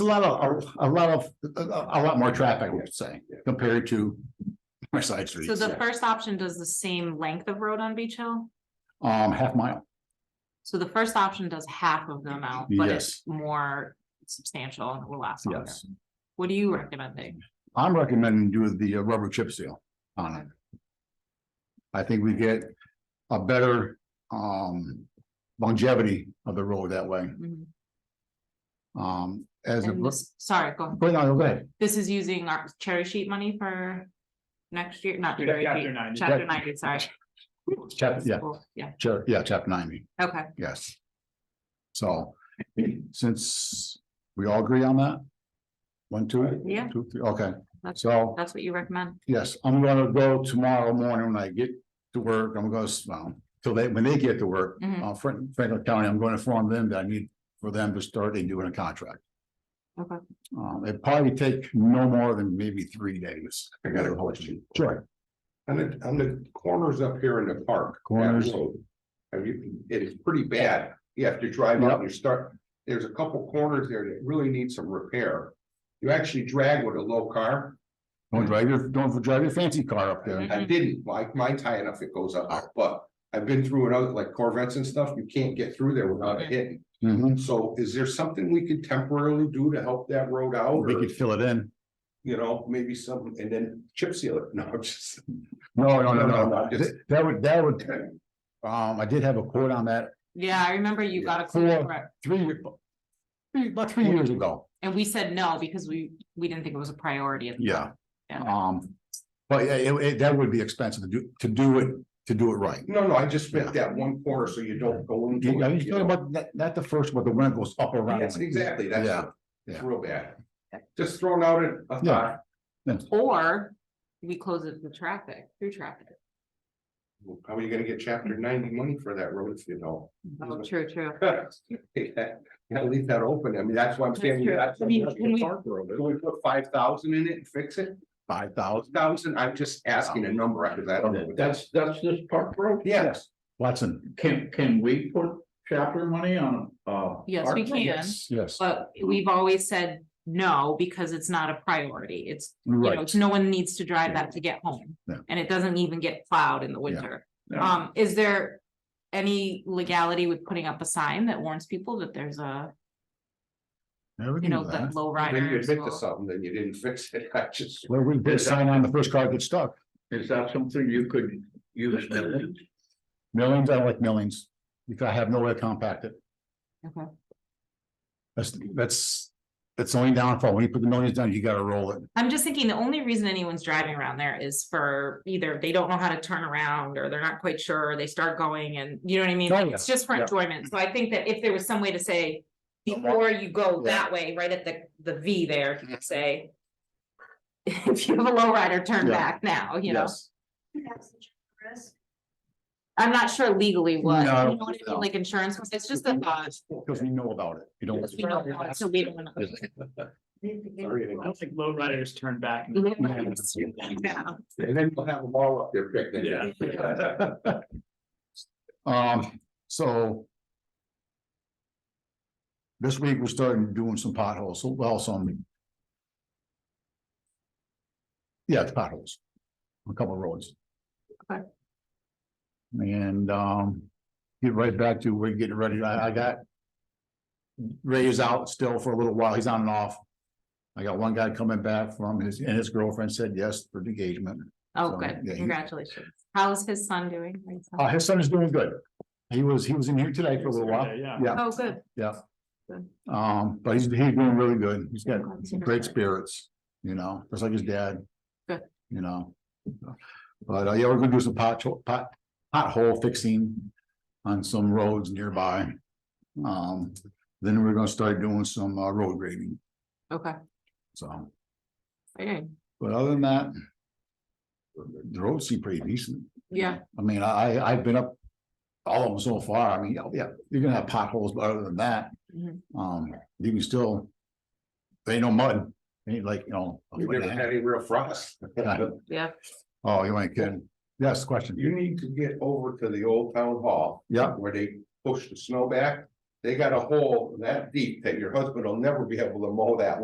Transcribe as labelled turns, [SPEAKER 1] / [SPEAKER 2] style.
[SPEAKER 1] a lot of, a lot of, a a lot more traffic, I would say, compared to my side
[SPEAKER 2] So
[SPEAKER 1] streets,
[SPEAKER 2] the first option does the same length of road on Beach Hill?
[SPEAKER 1] um, half mile.
[SPEAKER 2] So the first option does half of the amount, but
[SPEAKER 1] Yes.
[SPEAKER 2] it's more substantial and will last longer.
[SPEAKER 1] Yes.
[SPEAKER 2] What are you recommending?
[SPEAKER 1] I'm recommending do the uh, rubber chip seal on it. I think we get a better, um, longevity of the road that way,
[SPEAKER 2] Mhm.
[SPEAKER 1] um, as. a
[SPEAKER 2] And this, sorry, go,
[SPEAKER 1] Go ahead, go ahead.
[SPEAKER 2] this is using our cherry sheet money for next year, not
[SPEAKER 3] Yeah,
[SPEAKER 2] cherry
[SPEAKER 3] chapter
[SPEAKER 2] sheet,
[SPEAKER 3] 90.
[SPEAKER 2] chapter ninety, sorry.
[SPEAKER 1] Chapter, yeah,
[SPEAKER 2] Cool, Yeah,
[SPEAKER 1] chap- yeah, chapter ninety,
[SPEAKER 2] okay,
[SPEAKER 1] yes. So, since we all agree on that? One, two?
[SPEAKER 2] Yeah.
[SPEAKER 1] Two, three, okay,
[SPEAKER 2] That's-
[SPEAKER 1] so.
[SPEAKER 2] that's what you recommend.
[SPEAKER 1] Yes, I'm gonna go tomorrow morning when I get to work, I'm gonna, s- well, till they, when they get to work,
[SPEAKER 2] Mhm.
[SPEAKER 1] uh, Frank- Franklin County, I'm gonna inform them that I need for them to start and doing a contract.
[SPEAKER 2] Okay.
[SPEAKER 1] Um, it probably take no more than maybe three days.
[SPEAKER 4] I got a question.
[SPEAKER 1] Sure.
[SPEAKER 4] On the, on the corners up here in the park. that
[SPEAKER 1] Corners.
[SPEAKER 4] road, I mean, it is pretty bad. You have to drive out
[SPEAKER 1] Yep.
[SPEAKER 4] and you start, there's a couple corners there that really need some repair. You actually drag with a low car.
[SPEAKER 1] Don't drive your, don't drive your fancy car up there.
[SPEAKER 4] I didn't like my tie enough, it goes up, but I've been through another, like Corvettes and stuff, you can't get through there without it hitting.
[SPEAKER 1] Mhm.
[SPEAKER 4] So is there something we could temporarily do to help that road out?
[SPEAKER 1] We
[SPEAKER 4] Or,
[SPEAKER 1] could fill it in.
[SPEAKER 4] you know, maybe some, and then chip seal it? No, I'm just.
[SPEAKER 1] No, no, no,
[SPEAKER 4] No, no,
[SPEAKER 1] no.
[SPEAKER 4] no, just-
[SPEAKER 1] Th- That would, that would, um, I did have a quote on that
[SPEAKER 2] Yeah, I remember you got a
[SPEAKER 1] Four.
[SPEAKER 2] quote, for it,
[SPEAKER 1] three, year- three- about three years ago.
[SPEAKER 2] and we said no because we, we didn't think it was a priority. at the time.
[SPEAKER 1] Yeah.
[SPEAKER 2] Yeah.
[SPEAKER 1] Um, but yeah, it, it, that would be expensive to do, to do it, to do it right.
[SPEAKER 4] No, no, I just meant that one corner, so you don't go into.
[SPEAKER 1] You-
[SPEAKER 4] it,
[SPEAKER 1] Are you
[SPEAKER 4] you
[SPEAKER 1] talking
[SPEAKER 4] know.
[SPEAKER 1] about, not, not the first, but the one that goes up around?
[SPEAKER 4] Yes, exactly, that's,
[SPEAKER 1] Yeah,
[SPEAKER 4] it's
[SPEAKER 1] yeah.
[SPEAKER 4] real bad. Just throwing out a- a
[SPEAKER 1] Yeah.
[SPEAKER 4] thought.
[SPEAKER 2] Or we close it to traffic, through traffic.
[SPEAKER 4] How are you gonna get chapter ninety money for that road if you don't?
[SPEAKER 2] Oh, true, true.
[SPEAKER 4] You gotta leave that open, I mean, that's why I'm
[SPEAKER 2] That's
[SPEAKER 4] saying.
[SPEAKER 2] true.
[SPEAKER 4] that's-
[SPEAKER 2] I mean, can we-
[SPEAKER 4] Can we put five thousand in it and fix it?
[SPEAKER 1] Five thousand,
[SPEAKER 4] Thousand, I'm just asking a number, because I don't know. what
[SPEAKER 3] That's, that's this park road?
[SPEAKER 4] Yes,
[SPEAKER 1] Watson,
[SPEAKER 3] Can, can we put chapter money on, uh?
[SPEAKER 2] Yes, we
[SPEAKER 3] park road?
[SPEAKER 2] can.
[SPEAKER 1] yes,
[SPEAKER 2] But we've always said no, because it's not a priority. It's, you know,
[SPEAKER 1] right,
[SPEAKER 2] no one needs to drive that to get home.
[SPEAKER 1] Yeah.
[SPEAKER 2] And it doesn't even get plowed in the winter.
[SPEAKER 3] Yeah.
[SPEAKER 2] Um, is there any legality with putting up a sign that warns people that there's a,
[SPEAKER 1] Yeah, we
[SPEAKER 2] you
[SPEAKER 1] can do
[SPEAKER 2] know, that
[SPEAKER 1] that.
[SPEAKER 2] low
[SPEAKER 4] then you
[SPEAKER 2] rider?
[SPEAKER 4] admit to something, then you didn't fix it, I just.
[SPEAKER 1] Well, we did sign on the first card that stuck,
[SPEAKER 3] Is that something you could use? Milton?
[SPEAKER 1] millions, I don't like millions, because I have no way to compact it.
[SPEAKER 2] Okay.
[SPEAKER 1] That's, that's, that's the only downfall, when you put the millions down, you gotta roll it,
[SPEAKER 2] I'm just thinking the only reason anyone's driving around there is for either they don't know how to turn around or they're not quite sure, they start going and you know what I mean?
[SPEAKER 1] Oh,
[SPEAKER 2] Like,
[SPEAKER 1] yeah.
[SPEAKER 2] It's just for
[SPEAKER 1] Yeah.
[SPEAKER 2] enjoyment. So I think that if there was some way to say,
[SPEAKER 1] Yeah.
[SPEAKER 2] before you go
[SPEAKER 1] Yeah.
[SPEAKER 2] that way, right at the, the V there, you could say. If you have a low rider, turn
[SPEAKER 1] Yeah.
[SPEAKER 2] back now, you know?
[SPEAKER 1] yes,
[SPEAKER 2] I'm not sure legally what, you
[SPEAKER 1] No,
[SPEAKER 2] know what I
[SPEAKER 1] no. Mm-hmm.
[SPEAKER 2] mean, like insurance, it's just a thought.
[SPEAKER 1] because we know about it, you don't.
[SPEAKER 2] We don't know, so we don't know.
[SPEAKER 3] I don't think low riders turn back.
[SPEAKER 2] Mm-hmm. Yeah.
[SPEAKER 4] And then you'll have them all up there picking.
[SPEAKER 1] Um, so. This week, we're starting doing some potholes, so, well, some. Yeah, it's potholes. A couple of roads.
[SPEAKER 2] Okay.
[SPEAKER 1] And, um, get right back to, we're getting ready, I, I got. Ray is out still for a little while, he's on and off. I got one guy coming back from his, and his girlfriend said yes for the engagement.
[SPEAKER 2] Oh,
[SPEAKER 1] So,
[SPEAKER 2] good,
[SPEAKER 1] yeah, he-
[SPEAKER 2] congratulations. How's his son doing?
[SPEAKER 1] Uh, his son is doing good. He was, he was in here today for a little while.
[SPEAKER 3] Yeah.
[SPEAKER 1] Yeah,
[SPEAKER 2] Oh, good.
[SPEAKER 1] um, but he's, he's doing really good. He's got
[SPEAKER 2] Glad to hear
[SPEAKER 1] great
[SPEAKER 2] that.
[SPEAKER 1] spirits, you know, just like his dad.
[SPEAKER 2] Good.
[SPEAKER 1] You know. But, uh, yeah, we're gonna do some pot, pot, pothole fixing on some roads nearby. Um, then we're gonna start doing some, uh, road grading,
[SPEAKER 2] Okay,
[SPEAKER 1] so,
[SPEAKER 2] exciting.
[SPEAKER 1] but other than that. The roads seem pretty decent.
[SPEAKER 2] yeah,
[SPEAKER 1] I mean, I, I- I've been up all of them so far. I mean, yeah, yeah, you're gonna have potholes, but other than that,
[SPEAKER 2] Mhm.
[SPEAKER 1] um, you can still. They ain't no mud, ain't like, you know. a
[SPEAKER 4] We've
[SPEAKER 1] foot and
[SPEAKER 4] never
[SPEAKER 1] a
[SPEAKER 4] had
[SPEAKER 1] half.
[SPEAKER 4] any real frost.
[SPEAKER 1] Yeah.
[SPEAKER 2] yeah.
[SPEAKER 1] Oh, you ain't kidding. Yes, question.
[SPEAKER 4] You need to get over to the old town hall
[SPEAKER 1] Yeah,
[SPEAKER 4] where they push the snow back. They got a hole that deep that your husband will never be able to mow that